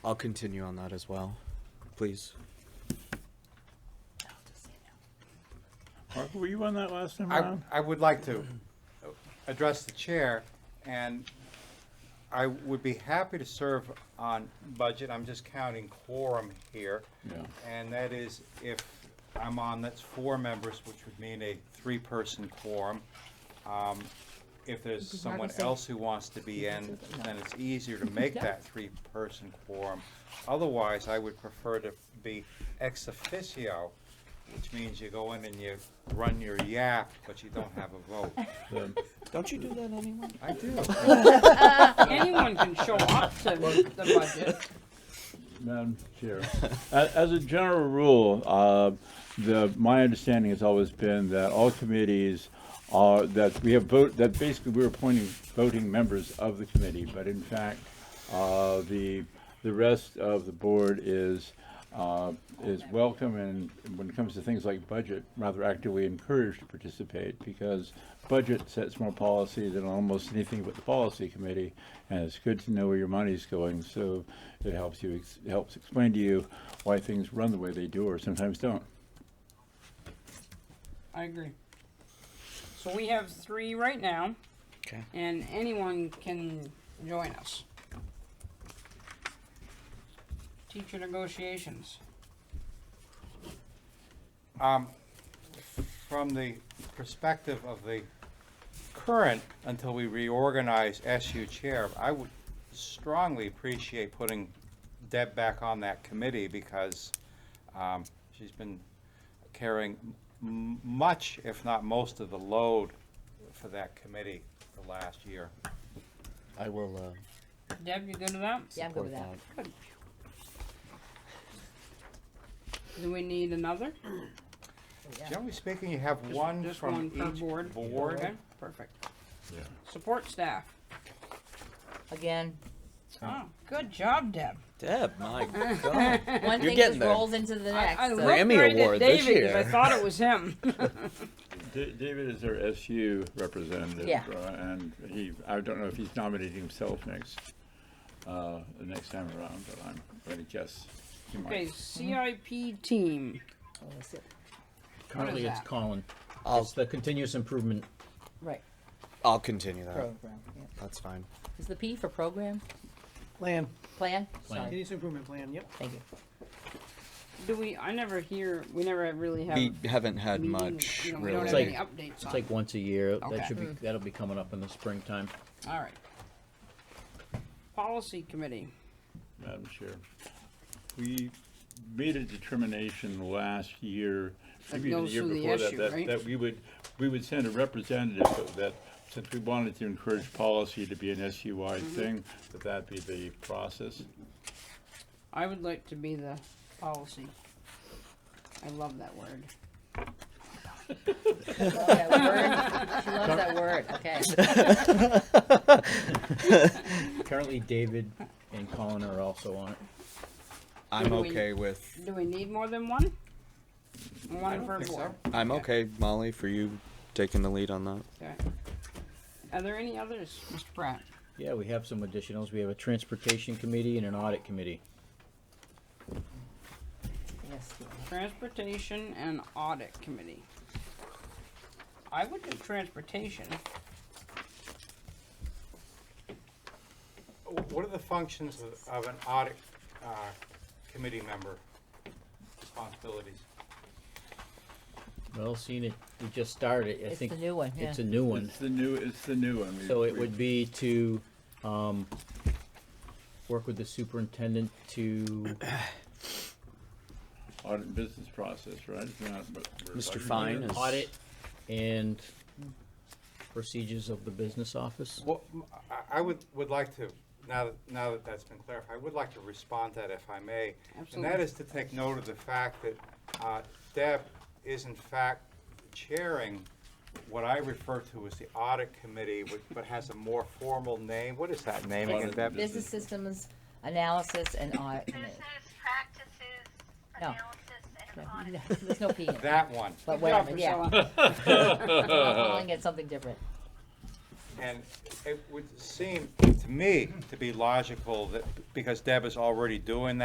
I'll continue on that as well, please. Mark, were you on that last time I, around? I would like to address the chair, and I would be happy to serve on budget, I'm just counting quorum here. Yeah. And that is if I'm on, that's four members, which would mean a three-person quorum. Um, If there's Because Mark someone was saying- else who wants to be in, then it's easier to make that three-person quorum. Otherwise, I would prefer to be ex officio, which means you go in and you run your yap, but you don't have a vote. Don't you do that anymore? I do. Anyone can show up to the budget. Madam Chair, a- as a general rule, uh, the, my understanding has always been that all committees are, that we have vote, that basically we're appointing voting members of the committee, but in fact, uh, the, the rest of the board is, uh, is welcome and when it comes to things like budget, rather actively encouraged to participate because budget sets more policy than almost anything but the policy committee. And it's good to know where your money's going, so it helps you, ex- helps explain to you why things run the way they do or sometimes don't. I agree. So we have three right now, Okay. and anyone can join us. Teacher negotiations. Um, From the perspective of the current, until we reorganize SU chair, I would strongly appreciate putting Deb back on that committee because um, she's been carrying m- much, if not most of the load for that committee the last year. I will, uh, Deb, you good with that? Yeah, I'm good with support that. Do we need another? Generally speaking, you have Just- one just from per each board. Okay, perfect. Support staff. Again, Oh, good job, Deb. Deb, my God. one You're thing getting just there. rolls into the I, next. I so- looked Grammy right at Award this David 'cause I year. thought it was him. Da- David is our SU representative. Yeah. uh, And he, I don't know if he's nominating himself next, uh, the next time around, but I'm gonna guess. he might. Okay, CIP team. Oh, that's it. Currently, What is it's that? Colin. I'll- It's the continuous improvement. Right, I'll continue that. program, yeah. That's fine. Is the P for program, Plan. plan? Plan. Sorry, Continuous improvement plan, yep. thank you. Do we? I never hear. We never really have. We haven't had meetings, much, you know, Um, We really. don't have It's any updates It's on. it. like once a year. Okay. That should be, Mm. that'll be coming up in the springtime. All right. Policy committee. Madam Chair. We made a determination last year, That maybe even the goes year through the before that, issue, that, right? that we would, we would send a representative, but that, since we wanted to encourage policy to be an SU-wide Mm-hmm. thing, that that be the process. I would like to be the policy. I love that word. Love that word. She loves that word, okay. Currently, David and Colin are also on it. I'm Do we- okay with, Do we need more than one? I One don't per think so. board. I'm okay, Molly, for you taking the lead on that. Okay. Are there any others, Mr. Pratt? Yeah, we have some additionals. We have a transportation committee and an audit committee. Yes, Transportation and audit committee. I would do transportation. Wh- What are the functions of- of an audit uh, committee member responsibilities? Well, seeing it, we just started. I It's think the new one, yeah. It's a new one. It's the new, it's the new one. We- So it we- would be to, um, work with the superintendent to, Audit and business process, right? It's not what we're Mr. talking Fine about. is- audit and procedures of the business office. Well, m- I- I would, would like to, now that, now that that's been clarified, I would like to respond to that if I may. And that Absolutely. is to take note of the fact that uh, Deb is in fact chairing what I refer to as the audit committee, which- but has a more formal name. What is that name again, Audit Deb? business systems, analysis, and audit. committee. Business practices, No. analysis, and audit. No, There's no P in it, That one. but Good job, whatever, yeah, Priscilla. I'm calling it something different. And it would seem to me to be logical that, because Deb is already doing that.